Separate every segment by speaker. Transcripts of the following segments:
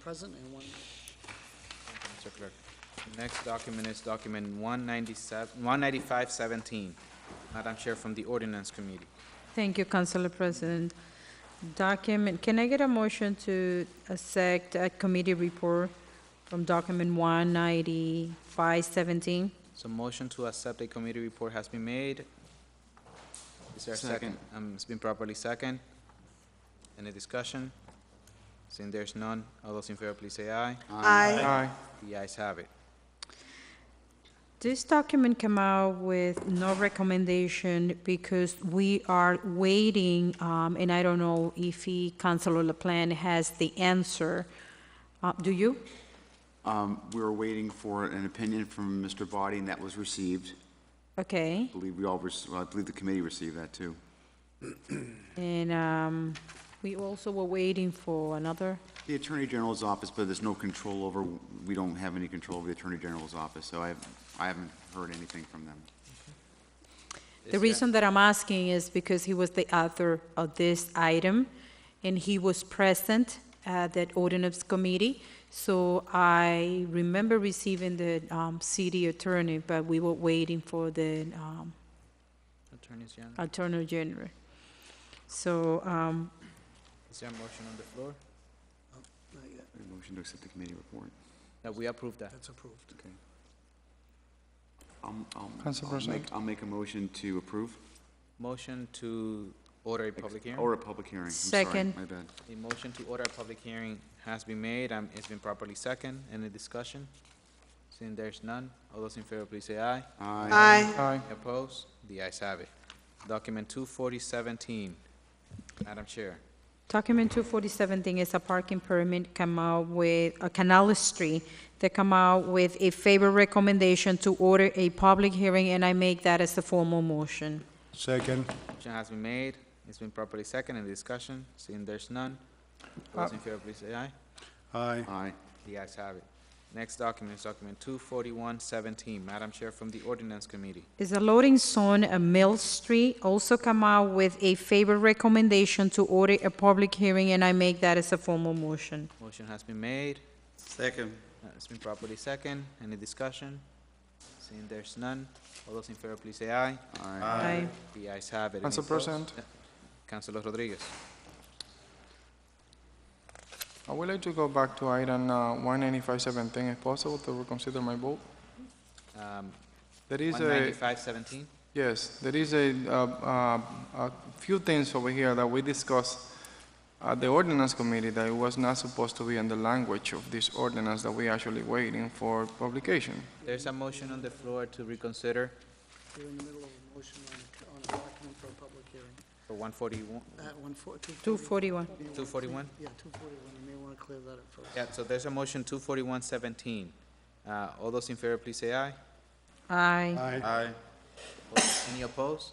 Speaker 1: present and one,
Speaker 2: Mr. Clerk. Next document is document 197 19517, Madam Chair from the Ordinance Committee.
Speaker 3: Thank you, Councilor President. Document, can I get a motion to accept a committee report from document 19517?
Speaker 2: So motion to accept a committee report has been made. Is there a second? Um, It's been properly second. Any discussion? Seeing there's none, all those in favor, please say aye.
Speaker 4: Aye.
Speaker 2: The ayes have it.
Speaker 3: This document came out with no recommendation because we are waiting, um, and I don't know if he, Councilor LaPlante, has the answer. Uh, Do you?
Speaker 4: Um, We were waiting for an opinion from Mr. Body, and that was received.
Speaker 3: Okay.
Speaker 4: I believe we all, rec- well, I believe the committee received that, too.
Speaker 3: And um, we also were waiting for another
Speaker 4: The Attorney General's office, but there's no control over, we don't have any control over the Attorney General's office, so I, I haven't heard anything from them.
Speaker 3: The reason that I'm asking is because he was the author of this item, and he was present at that ordinance committee. So I remember receiving the um, city attorney, but we were waiting for the um,
Speaker 2: Attorney General,
Speaker 3: attorney general. So um,
Speaker 2: is there a motion on the floor?
Speaker 1: not yet,
Speaker 4: A Motion to accept the committee report.
Speaker 2: That we approve that.
Speaker 1: that's approved.
Speaker 4: Okay. I'll- I'll- Um,
Speaker 5: Council
Speaker 4: I'll
Speaker 5: President.
Speaker 4: make- I'll make a motion to approve.
Speaker 2: Motion to order a public hearing.
Speaker 4: Or a public hearing. I'm sorry,
Speaker 3: Second.
Speaker 4: My bad.
Speaker 2: The motion to order a public hearing has been made, and it's been properly second. Any discussion? Seeing there's none, all those in favor, please say aye.
Speaker 4: Aye.
Speaker 5: Aye.
Speaker 2: Opposed? The ayes have it. Document 24017, Madam Chair.
Speaker 3: document 24017 is a parking permit come out with, uh, Canal Street, They come out with a favor recommendation to order a public hearing, and I make that as a formal motion.
Speaker 6: Second.
Speaker 2: Motion has been made, it's been properly second. Any discussion? Seeing there's none, all those in favor, please say aye.
Speaker 6: Aye.
Speaker 4: Aye.
Speaker 2: The ayes have it. Next document is document 24117, Madam Chair from the Ordinance Committee.
Speaker 3: is a loading zone at Mill Street, also come out with a favor recommendation to order a public hearing, and I make that as a formal motion.
Speaker 2: Motion has been made,
Speaker 4: Second.
Speaker 2: Uh, It's been properly second. Any discussion? Seeing there's none, all those in favor, please say aye.
Speaker 4: Aye.
Speaker 3: Aye.
Speaker 2: The ayes have it. Any
Speaker 5: Council
Speaker 2: opposed?
Speaker 5: President.
Speaker 2: Uh, Councilor Rodriguez.
Speaker 5: I would like to go back to item uh, 19517, if possible, to reconsider my vote.
Speaker 2: Um,
Speaker 5: There is a,
Speaker 2: 19517,
Speaker 5: yes, there is a, uh, uh, a few things over here that we discussed at the ordinance committee that it was not supposed to be in the language of this ordinance that we actually waiting for publication.
Speaker 2: there's a motion on the floor to reconsider
Speaker 1: We're in the middle of a motion on, a- on a document for a public hearing.
Speaker 2: for 141,
Speaker 1: At one four, two forty.
Speaker 3: 241.
Speaker 1: you may wanna
Speaker 2: 241?
Speaker 1: clear- Yeah, two forty-one, you may wanna clear that up first.
Speaker 2: yeah, so there's a motion 24117. Uh, All those in favor, please say aye.
Speaker 3: Aye.
Speaker 6: Aye.
Speaker 4: Aye.
Speaker 2: Any opposed?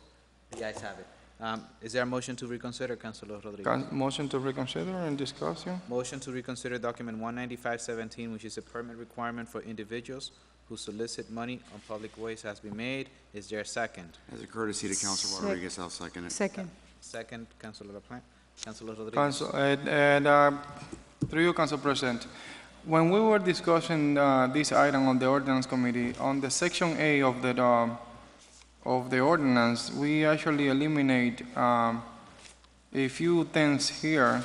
Speaker 2: The ayes have it. Um, Is there a motion to reconsider, Councilor Rodriguez?
Speaker 5: Can- Motion to reconsider and discussion?
Speaker 2: Motion to reconsider document one ninety-five seventeen, which is a permit requirement for individuals who solicit money on public ways has been made. Is there a second?
Speaker 4: As a courtesy to Council
Speaker 3: Sec-
Speaker 4: Rodriguez, I'll second it.
Speaker 3: Second.
Speaker 2: Second, Councilor LaPlante, Councilor Rodriguez.
Speaker 5: Council, and, and, uh, through you, Council President, when we were discussing, uh, this item on the ordinance committee, on the section A of the, um, of the ordinance, we actually eliminate, um, a few things here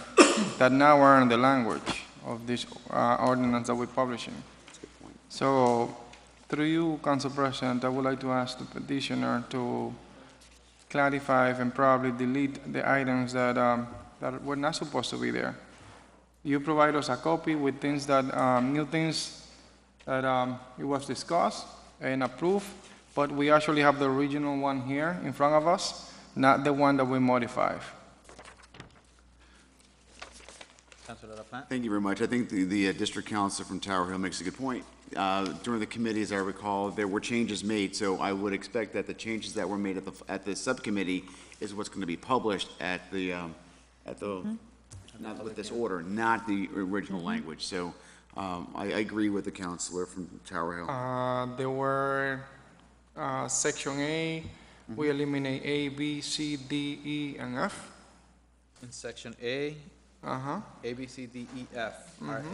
Speaker 5: that now are in the language of this, uh, ordinance that we're publishing. So, through you, Council President, I would like to ask the petitioner to clarify and probably delete the items that, um, that were not supposed to be there. You provide us a copy with things that, um, new things that, um, it was discussed and approved, but we actually have the original one here in front of us, not the one that we modified.
Speaker 2: Councilor LaPlante.
Speaker 4: Thank you very much. I think the, the uh, district council from Tower Hill makes a good point. Uh, During the committee, as I recall, there were changes made, so I would expect that the changes that were made at the, at the subcommittee is what's going to be published at the, um, at the, not with this order, not the original language. So um, I, I agree with the counselor from Tower Hill.
Speaker 5: Uh, there were, uh, section A, we eliminate A, B, C, D, E, and F.
Speaker 2: In section A,
Speaker 5: Uh-huh. Mm-hmm.
Speaker 2: A, B, C, D, E, F are